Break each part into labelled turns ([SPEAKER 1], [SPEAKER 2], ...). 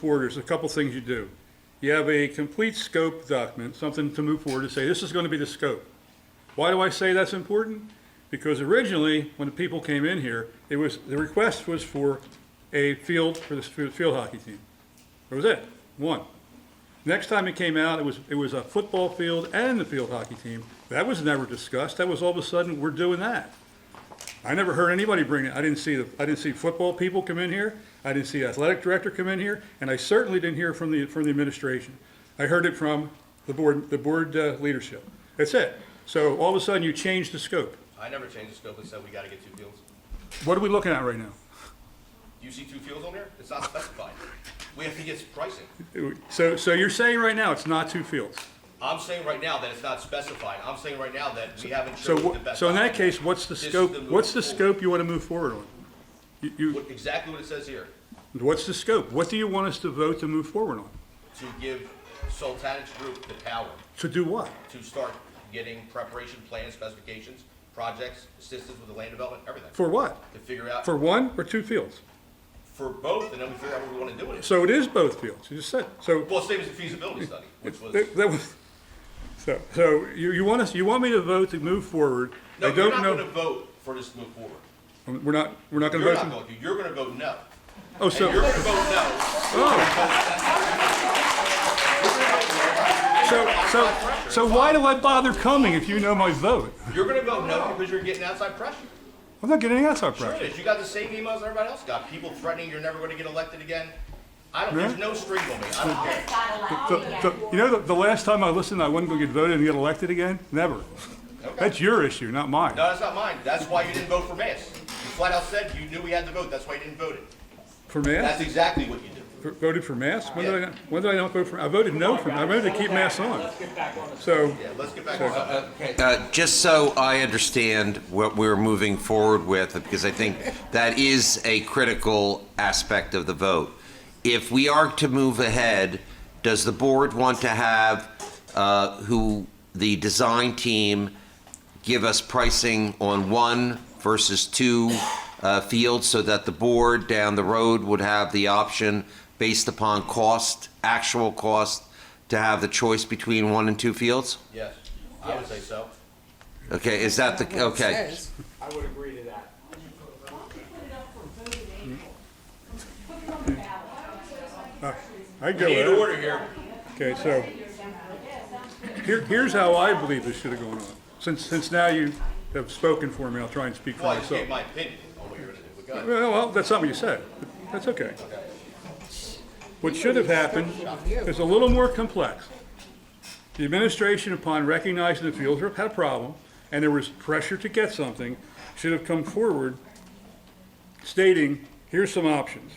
[SPEAKER 1] forward, there's a couple things you do. You have a complete scope document, something to move forward to say, this is going to be the scope. Why do I say that's important? Because originally, when the people came in here, it was, the request was for a field for the s- for the field hockey team. That was it, one. Next time it came out, it was, it was a football field and the field hockey team. That was never discussed. That was all of a sudden, we're doing that. I never heard anybody bring it. I didn't see the, I didn't see football people come in here. I didn't see athletic director come in here, and I certainly didn't hear from the from the administration. I heard it from the board, the board uh, leadership. That's it. So all of a sudden, you change the scope.
[SPEAKER 2] I never changed the scope and said we gotta get two fields.
[SPEAKER 1] What are we looking at right now?
[SPEAKER 2] Do you see two fields on there? It's not specified. We have to get pricing.
[SPEAKER 1] So so you're saying right now it's not two fields.
[SPEAKER 2] I'm saying right now that it's not specified. I'm saying right now that we haven't
[SPEAKER 1] So
[SPEAKER 2] chosen the
[SPEAKER 1] wh-
[SPEAKER 2] best.
[SPEAKER 1] so in that
[SPEAKER 2] option.
[SPEAKER 1] case, what's the
[SPEAKER 2] This is
[SPEAKER 1] scope?
[SPEAKER 2] the move
[SPEAKER 1] What's the
[SPEAKER 2] forward.
[SPEAKER 1] scope you want to move forward on? You, you
[SPEAKER 2] What- Exactly what it says here,
[SPEAKER 1] what's the scope? What do you want us to vote to move forward on?
[SPEAKER 2] to give Sultanich Group the power
[SPEAKER 1] To do what?
[SPEAKER 2] to start getting preparation plans, specifications, projects, assistance with the land development, everything.
[SPEAKER 1] For what?
[SPEAKER 2] To figure out
[SPEAKER 1] For one or two fields?
[SPEAKER 2] for both, and then we figure out what we wanna do with it.
[SPEAKER 1] So it is both fields. You just said so.
[SPEAKER 2] Well, same as the feasibility study, which was.
[SPEAKER 1] That that was, so, so you, you want us, you want me to vote to move forward?
[SPEAKER 2] No,
[SPEAKER 1] I
[SPEAKER 2] you're
[SPEAKER 1] don't
[SPEAKER 2] not gonna
[SPEAKER 1] know, Um,
[SPEAKER 2] vote for this to move forward.
[SPEAKER 1] we're not, we're not gonna
[SPEAKER 2] You're
[SPEAKER 1] vote.
[SPEAKER 2] not
[SPEAKER 1] to-
[SPEAKER 2] going to. You're gonna vote no.
[SPEAKER 1] Oh,
[SPEAKER 2] And you're
[SPEAKER 1] so, oh.
[SPEAKER 2] gonna vote no.
[SPEAKER 1] so, so, so why do I bother coming if you know my vote?
[SPEAKER 2] You're gonna vote no because you're getting outside pressure.
[SPEAKER 1] I'm not getting any outside
[SPEAKER 2] Sure
[SPEAKER 1] pressure.
[SPEAKER 2] it is. You got the same emails everybody else got. People threatening you're never gonna get elected again. I don't, there's
[SPEAKER 1] Yeah.
[SPEAKER 2] no string on me. I don't care.
[SPEAKER 1] The- the- You know, the, the last time I listened, I wasn't gonna get voted and get elected again? Never. That's your issue, not mine.
[SPEAKER 2] No, that's not mine. That's why you didn't vote for Mass. You flat out said you knew we had to vote. That's why you didn't vote it.
[SPEAKER 1] For
[SPEAKER 2] That's
[SPEAKER 1] mass,
[SPEAKER 2] exactly what you did.
[SPEAKER 1] For- voted for mass? When did I, not- when did I not vote for, I voted no for, I voted to keep mass on. So,
[SPEAKER 2] Yeah, let's get back to something.
[SPEAKER 3] Uh, Just so I understand what we're moving forward with, because I think that is a critical aspect of the vote. If we are to move ahead, does the board want to have uh, who, the design team, give us pricing on one versus two uh, fields so that the board down the road would have the option, based upon cost, actual cost, to have the choice between one and two fields?
[SPEAKER 2] Yes, I would say so.
[SPEAKER 3] Okay, is that the, okay.
[SPEAKER 4] I would agree to that.
[SPEAKER 1] I go
[SPEAKER 2] We need
[SPEAKER 1] with it.
[SPEAKER 2] order here.
[SPEAKER 1] Okay, so, here, here's how I believe this should have gone on. Since, since now you have spoken for me, I'll try and speak for
[SPEAKER 2] Well, I just
[SPEAKER 1] myself.
[SPEAKER 2] gave my opinion on what you're gonna do. But go ahead.
[SPEAKER 1] Well, well, that's not what you said. That's okay. What should have happened is a little more complex. The administration, upon recognizing the fields had a problem, and there was pressure to get something, should have come forward stating, here's some options.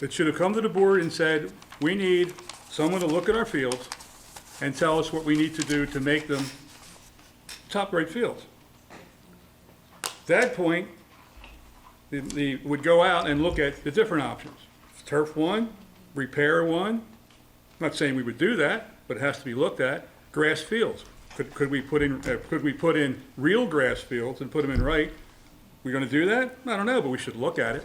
[SPEAKER 1] It should have come to the board and said, we need someone to look at our fields and tell us what we need to do to make them top rate fields that point, the, the, would go out and look at the different options. Turf one, repair one, not saying we would do that, but it has to be looked at. Grass fields, could, could we put in, uh, could we put in real grass fields and put them in right? We gonna do that? I don't know, but we should look at it.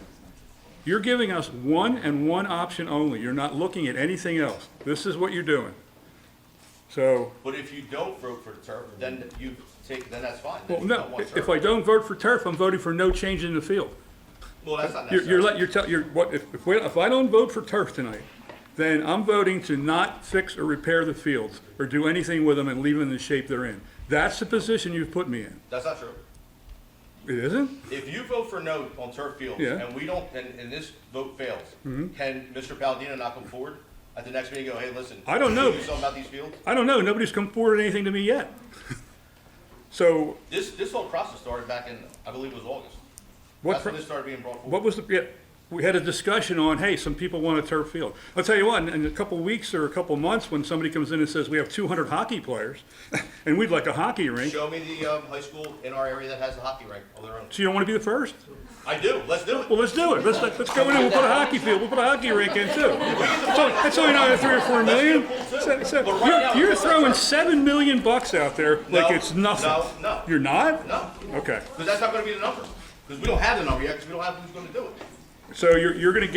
[SPEAKER 1] You're giving us one and one option only. You're not looking at anything else. This is what you're doing. So,
[SPEAKER 2] But if you don't vote for the turf, then you take, then that's fine. Then
[SPEAKER 1] well,
[SPEAKER 2] you don't
[SPEAKER 1] no,
[SPEAKER 2] want
[SPEAKER 1] if
[SPEAKER 2] turf.
[SPEAKER 1] I don't vote for turf, I'm voting for no change in the field.
[SPEAKER 2] Well, that's not
[SPEAKER 1] You're,
[SPEAKER 2] necessary.
[SPEAKER 1] you're let, you're tell, you're, what, if, if we- if I don't vote for turf tonight, then I'm voting to not fix or repair the fields or do anything with them and leave them in the shape they're in. That's the position you've put me in.
[SPEAKER 2] That's not true.
[SPEAKER 1] It isn't?
[SPEAKER 2] If you vote for no on turf fields,
[SPEAKER 1] Yeah. Mm-hmm.
[SPEAKER 2] and we don't, and, and this vote fails, can Mr. Palladino not come forward at the next meeting and go, hey, listen?
[SPEAKER 1] I don't know.
[SPEAKER 2] can we Do something about these fields?
[SPEAKER 1] I don't know. Nobody's come forward with anything to me yet. So
[SPEAKER 2] This, this whole process started back in, I believe it was August.
[SPEAKER 1] what,
[SPEAKER 2] That's when
[SPEAKER 1] pro-
[SPEAKER 2] this started being brought forward.
[SPEAKER 1] what was the, yeah, we had a discussion on, hey, some people want a turf field. I'll tell you what, in- in a couple weeks or a couple months, when somebody comes in and says, we have two hundred hockey players and we'd like a hockey rink,
[SPEAKER 2] Show me the, um, high school in our area that has a hockey rink of their own.
[SPEAKER 1] so you don't want to be the first?
[SPEAKER 2] I do, let's do it.
[SPEAKER 1] Well, let's do it. Let's, let's go in and we'll put a hockey field, we'll put a hockey rink in too. So, that's only another three or four million. So- so
[SPEAKER 2] But right now-
[SPEAKER 1] you're, you're throwing seven million bucks out there like
[SPEAKER 2] No,
[SPEAKER 1] it's nothing.
[SPEAKER 2] no, no.
[SPEAKER 1] You're not?
[SPEAKER 2] No,
[SPEAKER 1] Okay.
[SPEAKER 2] because that's not gonna be the number, because we don't have the number yet, because we don't have who's gonna do it.
[SPEAKER 1] So you're, you're gonna